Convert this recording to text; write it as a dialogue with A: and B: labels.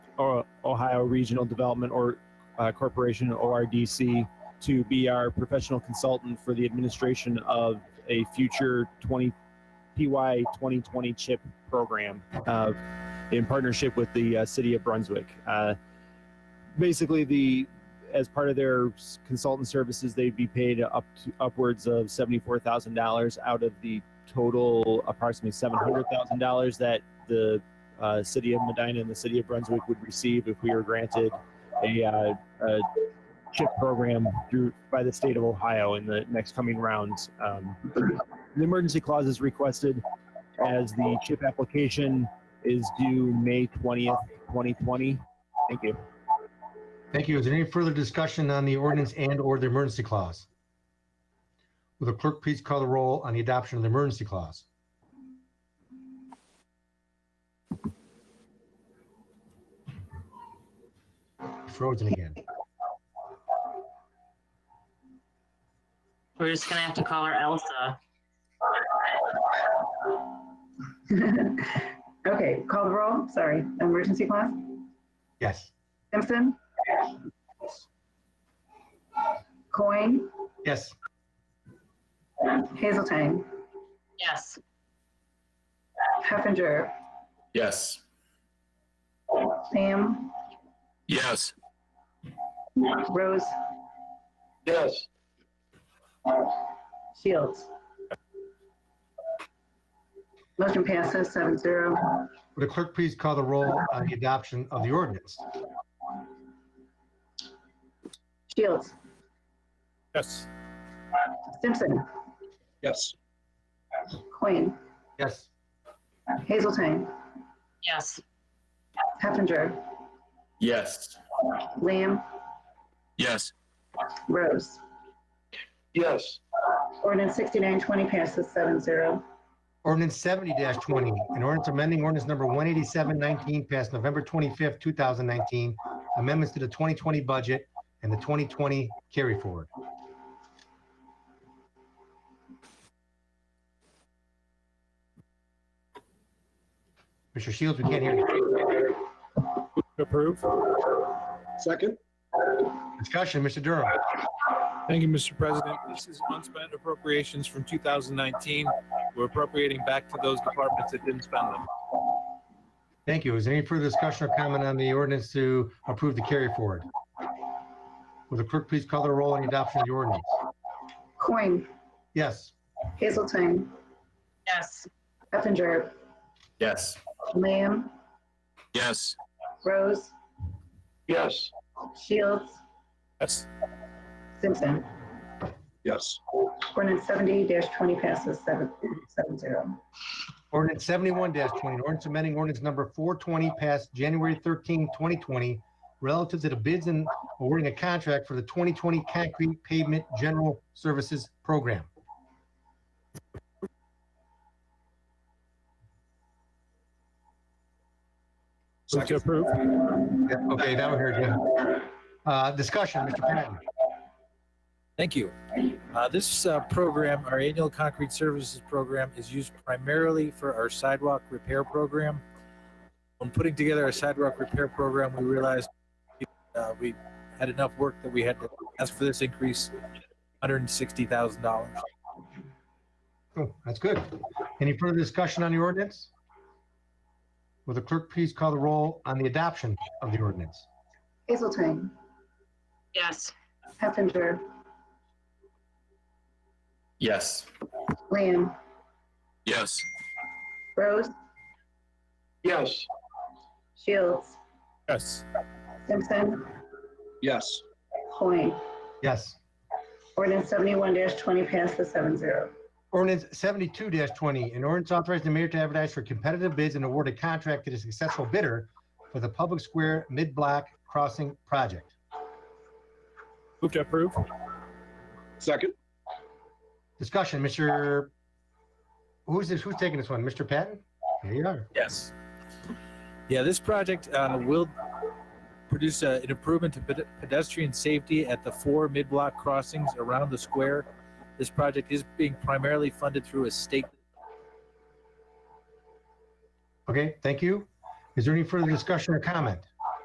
A: O- Ohio Regional Development or uh, Corporation, ORDC, to be our professional consultant for the administration of a future 20 PY 2020 chip program uh, in partnership with the uh, City of Brunswick. Uh, basically, the as part of their s- consultant services, they'd be paid up to upwards of seventy-four thousand dollars out of the total approximately seven hundred thousand dollars that the uh, city of Medina and the city of Brunswick would receive if we were granted a, uh, a chip program through by the state of Ohio in the next coming rounds. Um, the emergency clause is requested as the chip application is due May twentieth, twenty twenty. Thank you.
B: Thank you. Is there any further discussion on the ordinance and/or the emergency clause? Will the clerk please call the roll on the adoption of the emergency clause? Frozen again.
C: We're just gonna have to call her Elsa.
D: Okay, call the roll, sorry, emergency clause.
B: Yes.
D: Simpson? Coin,
B: Yes.
D: Hazelton,
C: Yes,
D: Heffinger,
E: Yes.
D: Sam,
E: Yes.
D: Rose,
E: Yes.
D: Shields. Motion passes seven zero.
B: Will the clerk please call the roll on the adoption of the ordinance?
D: Shields,
E: Yes.
D: Simpson,
E: Yes.
D: Coin,
B: Yes.
D: Hazelton,
C: yes,
D: Heffinger,
E: Yes.
D: Lamb,
E: Yes.
D: Rose.
E: Yes.
D: Ordinance sixty-nine twenty passes seven zero.
B: Ordinance seventy twenty, an ordinance amending ordinance number one eighty-seven nineteen passed November twenty-fifth, two thousand nineteen. Amendments to the twenty twenty budget and the twenty twenty carry forward. Mr. Shields, we can't hear you.
A: Approve.
F: Second.
B: Discussion, Mr. Durham.
F: Thank you, Mr. President. This is unspent appropriations from 2019. We're appropriating back to those departments that didn't spend them.
B: Thank you. Is there any further discussion or comment on the ordinance to approve the carry forward? Will the clerk please call the roll on the adoption of the ordinance?
D: Coin,
B: Yes.
D: Hazelton,
C: yes,
D: Heffinger,
E: Yes.
D: Lamb,
E: Yes.
D: Rose,
E: Yes.
D: Shields,
F: Yes.
D: Simpson.
F: Yes.
D: Ordinance seventy twenty passes seven, seven zero.
B: Ordinance seventy-one twenty, an ordinance amending ordinance number four twenty passed January 13, 2020, relative to the bids and awarding a contract for the twenty twenty concrete pavement general services program.
A: Move to approve.
B: Okay, that one here, Jim. Uh, discussion, Mr. Patton.
G: Thank you. Uh, This uh, program, our annual concrete services program, is used primarily for our sidewalk repair program. When putting together our sidewalk repair program, we realized uh, we had enough work that we had to ask for this increase, $160,000.
B: Oh, that's good. Any further discussion on the ordinance? Will the clerk please call the roll on the adoption of the ordinance?
D: Hazelton,
C: yes,
D: Heffinger,
E: Yes.
D: Lamb,
E: Yes.
D: Rose,
E: Yes.
D: Shields,
F: Yes.
D: Simpson,
F: Yes.
D: Coin.
B: Yes.
D: Ordinance seventy-one twenty passes seven zero.
B: Ordinance seventy-two twenty, an ordinance authorizing the mayor to advertise for competitive bids and award a contract to the successful bidder for the Public Square Mid-Block Crossing Project.
A: Move to approve.
F: Second.
B: Discussion, Mr. Who's this, who's taking this one? Mr. Patton? There you are.
G: Yes. Yeah, this project uh, will produce uh, an improvement to ped- pedestrian safety at the four mid-block crossings around the square. This project is being primarily funded through a state
B: Okay, thank you. Is there any further discussion or comment?